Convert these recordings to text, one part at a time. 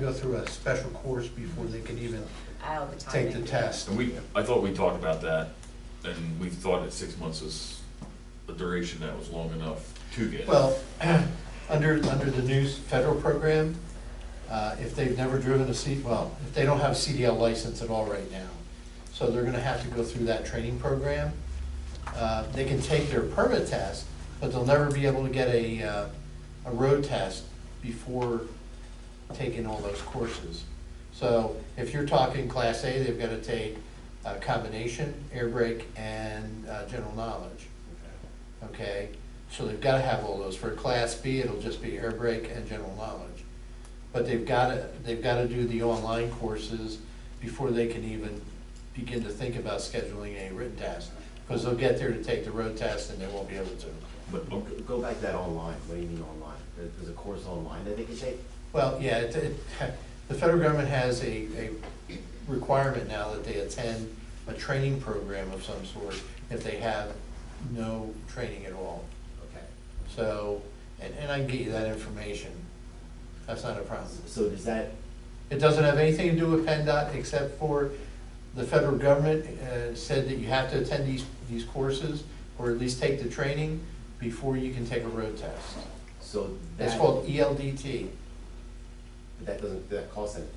go through a special course before they can even All the time. take they the do. test. And we, I thought we talked about that, and we thought that six months was a duration that was long enough to get. it. Well, under, under the new federal program, uh, if they've never driven a C, well, if they don't have a CDL license at all right now, so they're gonna have to go through that training program. Uh, They can take their permit test, but they'll never be able to get a, uh, a road test before taking all those courses. So if you're talking Class A, they've gotta take a combination, air brake, and uh, general knowledge okay? So they've gotta have all those. For Class B, it'll just be air brake and general knowledge. But they've gotta, they've gotta do the online courses before they can even begin to think about scheduling a written test. Because they'll get there to take the road test and they won't be able to. But, Go- okay, Go back to that online, what do you mean online? There- There's a course online that they can take? Well, yeah, it, it, the federal government has a, a requirement now that they attend a training program of some sort if they have no training at all. Okay. So, and, and I can get you that information. That's not a problem. So does that, It doesn't have anything to do with PennDOT except for the federal government uh, said that you have to attend these, these courses or at least take the training before you can take a road test. so that. It's called E ELDT. but That doesn't, that costs anything?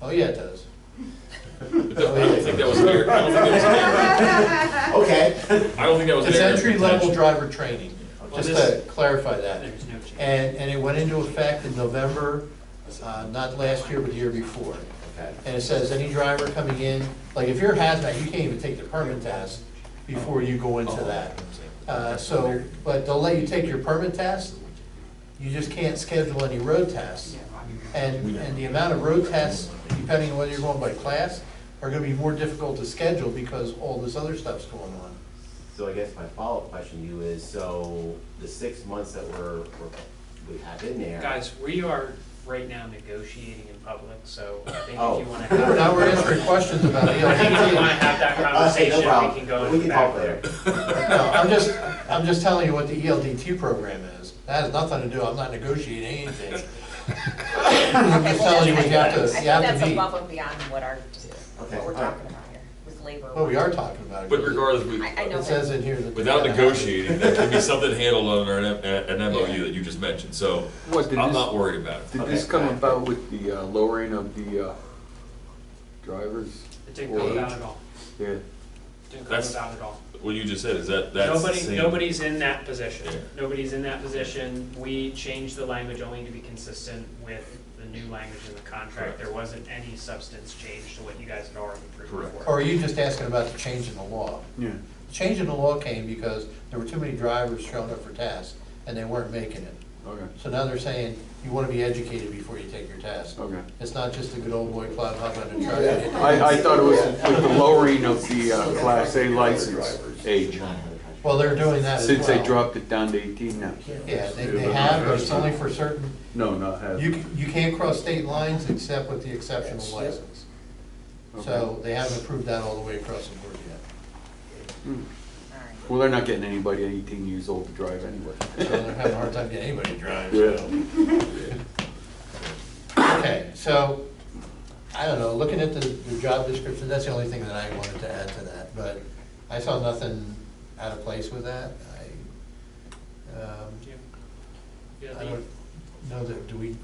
Oh, yeah, it does. I don't think that was there, I don't think that was Okay. I don't think that was It's their entry level intention. driver training, just to clarify that. There's no change. And, and it went into effect in November, uh, not last year, but the year before. Okay. And it says any driver coming in, like if you're hazmat, you can't even take the permit test before you go into that. Uh, So, but they'll let you take your permit test, you just can't schedule any road tests. And, and the amount of road tests, depending on whether you're going by class, are gonna be more difficult to schedule because all this other stuff's going on. So I guess my follow-up question to you is, so the six months that we're, we're- we have in there. Guys, we are right now negotiating in public, so I think if Oh. you wanna have. Now we're answering questions about I think if you wanna ELDT. have that Okay, conversation, no we problem. can go We in the can back talk there. later. No, I'm just, I'm just telling you what the E ELDT program is. That has nothing to do, I'm not negotiating anything. I'm Okay, just well, telling you what you have I to, think you have That's to meet. above and beyond what our, Okay, what we're all right. talking about here, with labor. Well, we are talking about it. But regardless, we, I- I know. It says in here that. without negotiating, that can be something handled under an, an MOU that you just mentioned, so What, did I'm this- not worried about it. Did this come about with the uh, lowering of the uh, drivers? It didn't come about at all, Yeah, didn't come That's- about at all. What you just said, is that, that's the Nobody, same? nobody's in that position, Yeah. nobody's in that position. We changed the language only to be consistent with the new language in the contract. Correct. There wasn't any substance change to what you guys had already approved Correct. before. Or are you just asking about the change in the law? yeah. The Change in the law came because there were too many drivers showing up for tests and they weren't making it. Okay, So now they're saying, you want to be educated before you take your test. okay. It's not just a good old boy club, I'm gonna try it. I, I thought it was with the lowering of the uh, Class A license age, Well, they're doing that as well. since they dropped it down to 18 now. Yeah, they, they have, but it's only for certain, No, not half. you, c- you can't cross state lines except with the exceptional license. So they haven't approved that all the way across the board yet. All right. Well, they're not getting anybody 18 years old to drive anyway. So they're having a hard time getting anybody to drive, Yeah. so. Okay, so, I don't know, looking at the, the job description, that's the only thing that I wanted to add to that, but I saw nothing out of place with that. I, um, Yeah. Yeah, I the- don't know that, do we,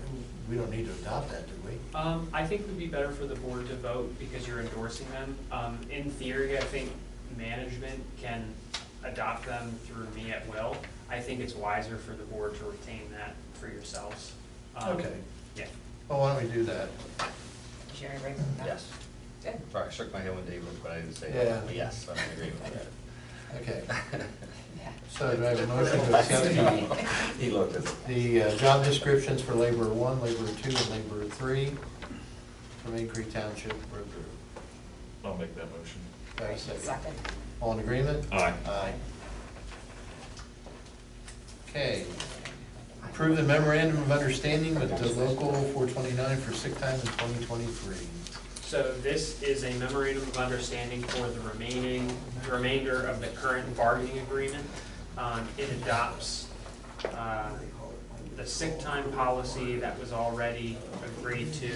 we don't need to adopt that, do we? Um, I think it would be better for the board to vote because you're endorsing them. Um, in theory, I think management can adopt them through me at will. I think it's wiser for the board to retain that for yourselves. Um, Okay. Yeah. Well, Oh, why don't we do that? Is your everybody with that? Yes. Good. Sorry, I shook my head when Dave looked, but I didn't say Yeah. anything. Yes, I'm agreeing with Okay, Yeah. so do I have a motion to accept the that. He looked at it. The uh, job descriptions for laborer one, laborer two, and laborer three from Main Creek Township Road Crew. I'll make that motion. Do I have a second? Second. All in agreement? Aye. Aye. Okay. Approve the memorandum of understanding with the local four twenty-nine for sick time in twenty twenty-three. So this is a memorandum of understanding for the remaining, remainder of the current bargaining agreement. Um, It adopts uh, the sick time policy that was already agreed to